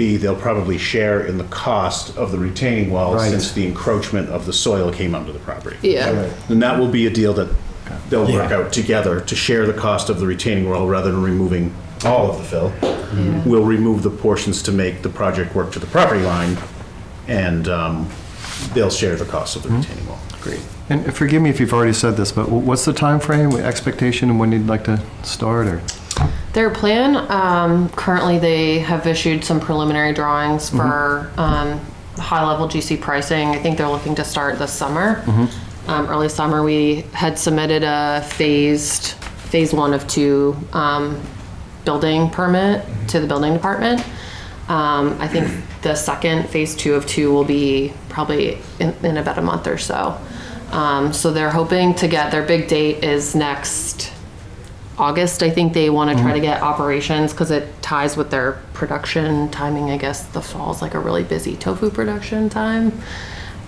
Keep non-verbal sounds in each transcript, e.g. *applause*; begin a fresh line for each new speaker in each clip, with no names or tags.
B, they'll probably share in the cost of the retaining wall
Right.
since the encroachment of the soil came onto the property.
Right.
Yeah,
And that will be a deal that they'll work
Yeah.
out together to share the cost of the retaining wall rather than removing all of the fill. We'll remove the portions to make the project work to the property line, and um, they'll share the cost of the retaining wall. Great.
And forgive me if you've already said this, but wh- what's the timeframe, expectation, and when you'd like to start, or?
their plan, um, currently they have issued some preliminary drawings for, um, high-level GC pricing. I think they're looking to start this summer. Um, early summer, we had submitted a phased, phase one of two, um, building permit to the building department. Um, I think the second, phase two of two will be probably in, in about a month or so. Um, so they're hoping to get, their big date is next August, I think they want to try to get operations because it ties with their production timing. I guess the fall's like a really busy tofu production time.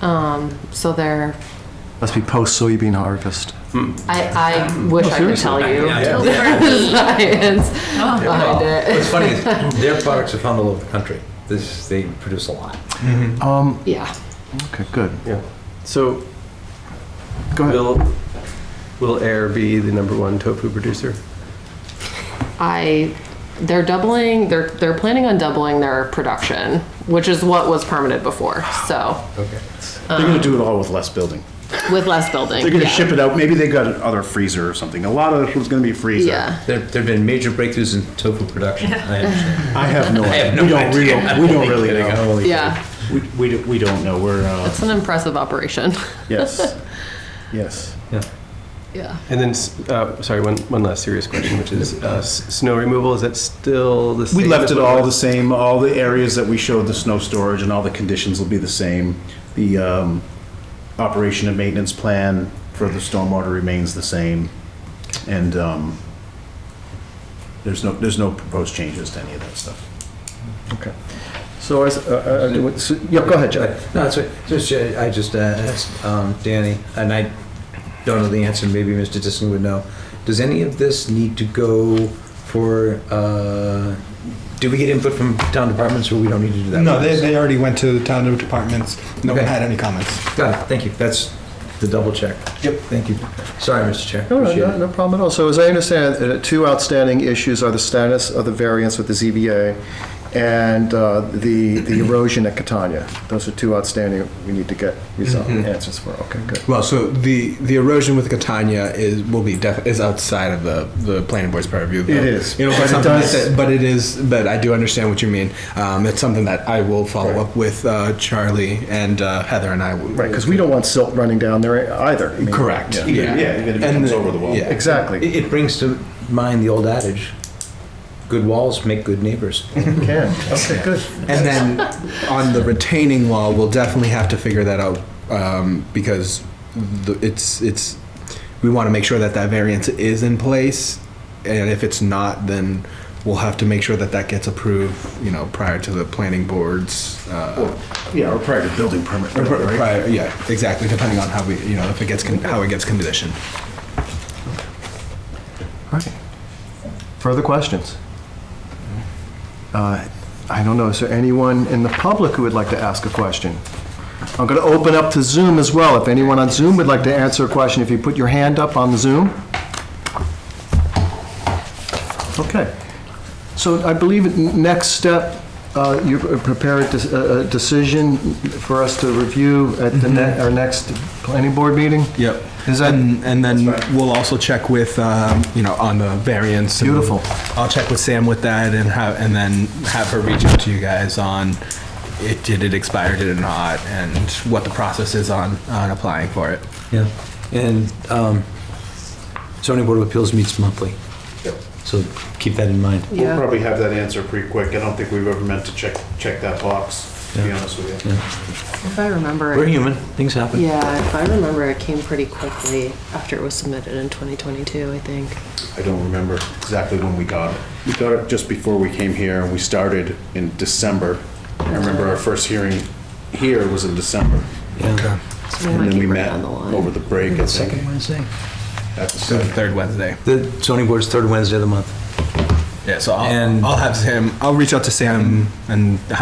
Um, so they're,
Must be post soybean harvest.
I, I wish I could tell you *laughs*
Yeah. Oh,
the science behind it.
What's funny is
*laughs*
their products are found all over the country. This, they produce a lot.
Yeah.
Okay, good.
Yeah. So
Go ahead.
will, will Air be the number one tofu producer?
I, they're doubling, they're, they're planning on doubling their production, which is what was permitted before. So
Okay.
They're going to do it all with less building.
with less building.
They're going to
Um, yeah.
ship it out, maybe they got another freezer or something. A lot of it was going to be freezer.
Yeah.
There, there've been major breakthroughs in tofu production. I understand.
I have no
have
idea.
no
We don't really,
idea. *laughs*
we don't really
Kidding, I'm
know.
only
Yeah.
We, we don't- we don't know, we're, uh,
It's an impressive operation. *laughs*
yes, yes.
kidding. Yeah.
Yeah.
And then, s- uh, sorry, one, one last serious question, which is uh, s- snow removal, is that still the same?
We left
as
it
what
all the
was?
same, all the areas that we showed the snow storage and all the conditions will be the same. The um, operation and maintenance plan for the stormwater remains the same. And um, there's no, there's no proposed changes to any of that stuff.
Okay. So, I s- uh, uh, what- so- yeah, go ahead, Joe.
No, it's, just, uh, I just uh, asked um, Danny, and I don't know the answer, maybe Mr. Disson would know. Does any of this need to go for, uh, do we get input from town departments or we don't need to do that?
No, they, they already went to the town departments. No one
Okay.
had any comments.
Got it, thank you. That's the double check. Yep. Thank you. Sorry, Mr. Chair.
No, no,
Appreciate
no,
it.
no problem at all. So as I understand, it, uh, two outstanding issues are the status of the variance with the ZBA and uh, the, the erosion at Catania. Those are two outstanding we need to get resolved, answers for. Okay, good.
Well, so the, the erosion with Catania is will be def, is outside of the, the planning board's purview. though.
It is,
You know,
but
but,
it
something
does-
that, but it is. But I do understand what you mean. Um, it's something that I will follow up with uh, Charlie and uh, Heather and I. will-
Right, because we don't want silt running down there either. I mean,
Correct.
yeah.
Yeah.
Yeah, even if it
And
comes
the-
over the wall.
Yeah.
Exactly.
It, it brings to mind the old adage, good walls make good neighbors.
Can,
*laughs*
okay, good.
And then on the retaining wall, we'll definitely have to figure that out um, because the, it's it's we want to make sure that that variance is in place, and if it's not, then we'll have to make sure that that gets approved. You know, prior to the planning boards. Uh,
Yeah, or prior to building permit.
or pri-
right?
prior, yeah, exactly. Depending on how we, you know, if it gets con- how it gets conditioned.
All right. Further questions? Uh, I don't know, is there anyone in the public who would like to ask a question? I'm going to open up to Zoom as well. If anyone on Zoom would like to answer a question, if you put your hand up on Zoom. Okay. So I believe at n- next step, uh, you prepare a dec- a a decision for us to review at the ne- our next planning board meeting?
Yep.
Is that-
and, and then we'll also check with um, you know on the variance. and
Beautiful.
I'll check with Sam with that and have and then have her reach out to you guys on it did it expire did it not and what the process is on on applying for it.
Yeah, and um, zoning board of appeals meets monthly. So keep that in mind.
We'll
Yeah.
probably have that answer pretty quick. I don't think we've ever meant to check, check that box, to be
Yeah.
honest with you.
If I remember.
We're
it-
human, things happen.
Yeah, if I remember, it came pretty quickly after it was submitted in 2022, I think.
I don't remember exactly when we got it. We got it just before we came here, and we started in December. I remember our first hearing here was in December.
Yeah.
So
And
might
then we
be right
met
on the line.
over the break, I think.
Second Wednesday?
at the
So the
second.
third Wednesday.
The zoning board's third Wednesday of the month.
Yeah. So I'll,
And-
I'll have Sam. I'll reach out to Sam and